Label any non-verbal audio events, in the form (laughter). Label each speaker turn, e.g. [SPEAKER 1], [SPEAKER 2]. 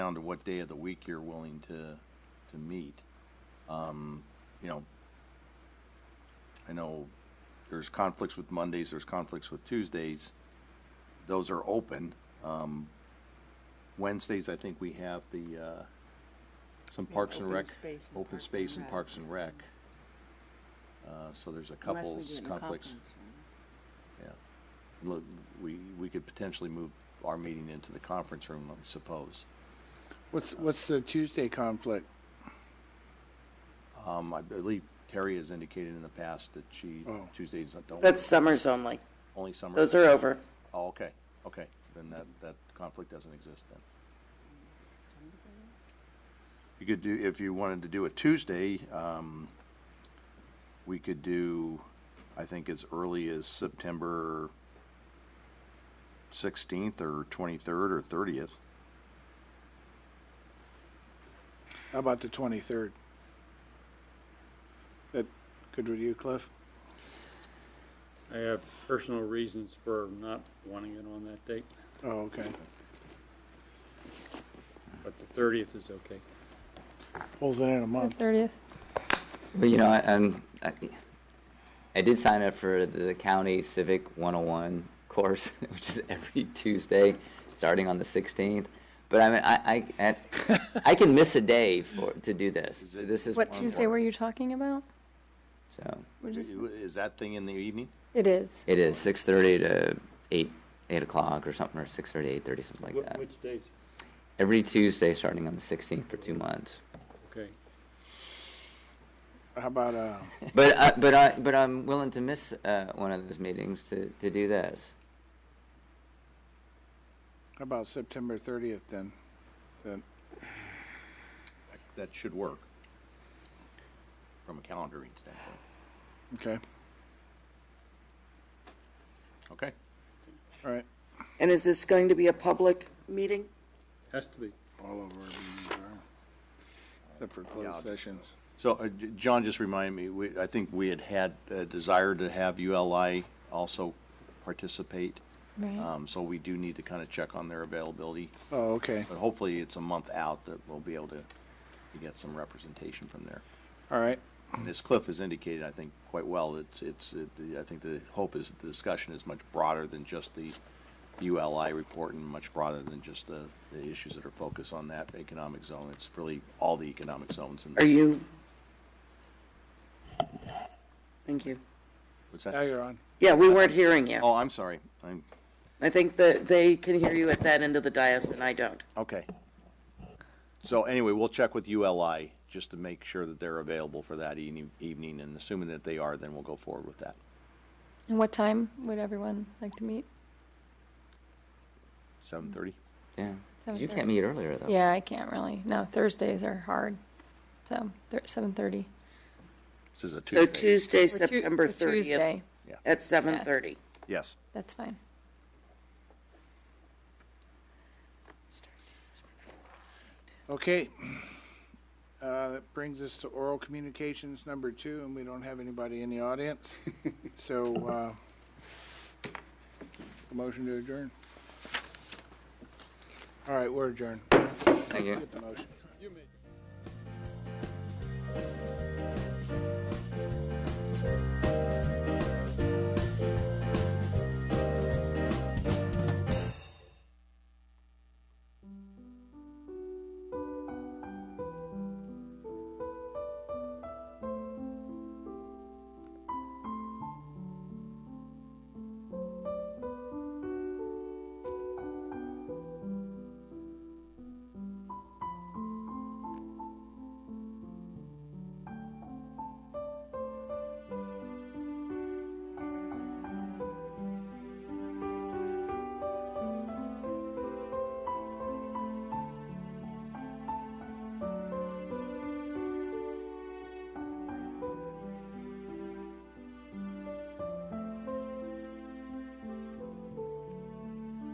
[SPEAKER 1] down to what day of the week you're willing to, to meet. Um, You know, I know there's conflicts with Mondays, there's conflicts with Tuesdays. Those are open. Um, Wednesdays, I think we have the, uh, some
[SPEAKER 2] We have
[SPEAKER 1] Parks and
[SPEAKER 2] open
[SPEAKER 1] Rec.
[SPEAKER 2] space and
[SPEAKER 1] Open
[SPEAKER 2] Parks
[SPEAKER 1] space
[SPEAKER 2] and
[SPEAKER 1] and
[SPEAKER 2] Rec.
[SPEAKER 1] Parks and Rec. Uh, So there's a
[SPEAKER 2] Unless we
[SPEAKER 1] couple
[SPEAKER 2] do it in a
[SPEAKER 1] conflicts.
[SPEAKER 2] conference room.
[SPEAKER 1] Yeah. Look, we, we could potentially move our meeting into the conference room, I suppose.
[SPEAKER 3] What's, what's the Tuesday conflict?
[SPEAKER 1] Um, I believe Terry has indicated in the past that she,
[SPEAKER 3] Oh.
[SPEAKER 1] Tuesdays don't,
[SPEAKER 4] That's summers only.
[SPEAKER 1] only summer.
[SPEAKER 4] Those are over.
[SPEAKER 1] Oh, okay, okay. Then that, that conflict doesn't exist then. You could do, if you wanted to do a Tuesday, um, we could do, I think as early as September sixteenth or twenty-third or thirtieth.
[SPEAKER 3] How about the 23rd? That good with you, Cliff?
[SPEAKER 5] I have personal reasons for not wanting it on that date,
[SPEAKER 3] Oh, okay.
[SPEAKER 5] but the thirtieth is okay.
[SPEAKER 3] Pulls it in a
[SPEAKER 6] The
[SPEAKER 3] month.
[SPEAKER 6] 30th.
[SPEAKER 7] Well, you know, I, I'm, I, I did sign up for the county civic 101 course, (laughs) which is every Tuesday, starting on the 16th. But I mean, I, I,
[SPEAKER 1] (laughs)
[SPEAKER 7] at, I can miss a day for to do this.
[SPEAKER 1] Is it-
[SPEAKER 7] this is
[SPEAKER 6] What
[SPEAKER 7] one
[SPEAKER 6] Tuesday were
[SPEAKER 7] more.
[SPEAKER 6] you talking about?
[SPEAKER 7] So
[SPEAKER 6] We're just-
[SPEAKER 1] Is that thing in the evening?
[SPEAKER 6] It is.
[SPEAKER 7] it is 6:30 to 8, 8 o'clock or something, or 6:30, 8:30, something like
[SPEAKER 5] Wh-
[SPEAKER 7] that.
[SPEAKER 5] Which days?
[SPEAKER 7] Every Tuesday, starting on the 16th for two months.
[SPEAKER 5] Okay.
[SPEAKER 3] How about, uh,
[SPEAKER 7] But I, but I, but I'm willing to miss uh, one of those meetings to, to do this.
[SPEAKER 3] how about September 30th then?
[SPEAKER 1] That should work from a calendaring standpoint.
[SPEAKER 3] Okay,
[SPEAKER 1] Okay?
[SPEAKER 3] all right.
[SPEAKER 4] And is this going to be a public meeting?
[SPEAKER 5] Has to be.
[SPEAKER 3] All over. our meetings are, Except for
[SPEAKER 1] Yeah, I'll-
[SPEAKER 3] closed sessions.
[SPEAKER 1] So, uh, J- John, just remind me, we, I think we had had a desire to have ULI also participate.
[SPEAKER 6] Right.
[SPEAKER 1] Um, so we do need to kind of check on their availability,
[SPEAKER 3] Oh, okay,
[SPEAKER 1] but hopefully it's a month out that we'll be able to, to get some representation from there.
[SPEAKER 3] all right.
[SPEAKER 1] And as Cliff has indicated, I think quite well, it's, it's, it- the- I think the hope is that the discussion is much broader than just the ULI report and much broader than just the, the issues that are focused on that economic zone. It's really all the economic zones and.
[SPEAKER 4] Are you? Thank you.
[SPEAKER 1] What's
[SPEAKER 3] Now
[SPEAKER 1] that?
[SPEAKER 3] you're on.
[SPEAKER 4] Yeah, we weren't hearing you.
[SPEAKER 1] Oh, I'm sorry. I'm,
[SPEAKER 4] I think that they can hear you at that end of the dais and I don't.
[SPEAKER 1] okay. So anyway, we'll check with ULI just to make sure that they're available for that evening, evening, and assuming that they are, then we'll go forward with that.
[SPEAKER 6] And what time would everyone like to meet?
[SPEAKER 1] Seven thirty?
[SPEAKER 7] Yeah, 'Cause you
[SPEAKER 6] 7:30.
[SPEAKER 7] can't meet earlier though.
[SPEAKER 6] Yeah, I can't really. No, Thursdays are hard. So thir- 7:30.
[SPEAKER 1] This is a Tuesday.
[SPEAKER 4] So Tuesday,
[SPEAKER 6] Or Tu-
[SPEAKER 4] September
[SPEAKER 6] or
[SPEAKER 4] 30th
[SPEAKER 6] Tuesday.
[SPEAKER 4] at 7:30.
[SPEAKER 1] Yes.
[SPEAKER 6] That's fine.
[SPEAKER 3] Okay. Uh, that brings us to oral communications number two, and we don't have anybody in the audience. So, uh, a motion to adjourn. All right, we're adjourned.
[SPEAKER 7] Thank you.
[SPEAKER 3] Get the motion.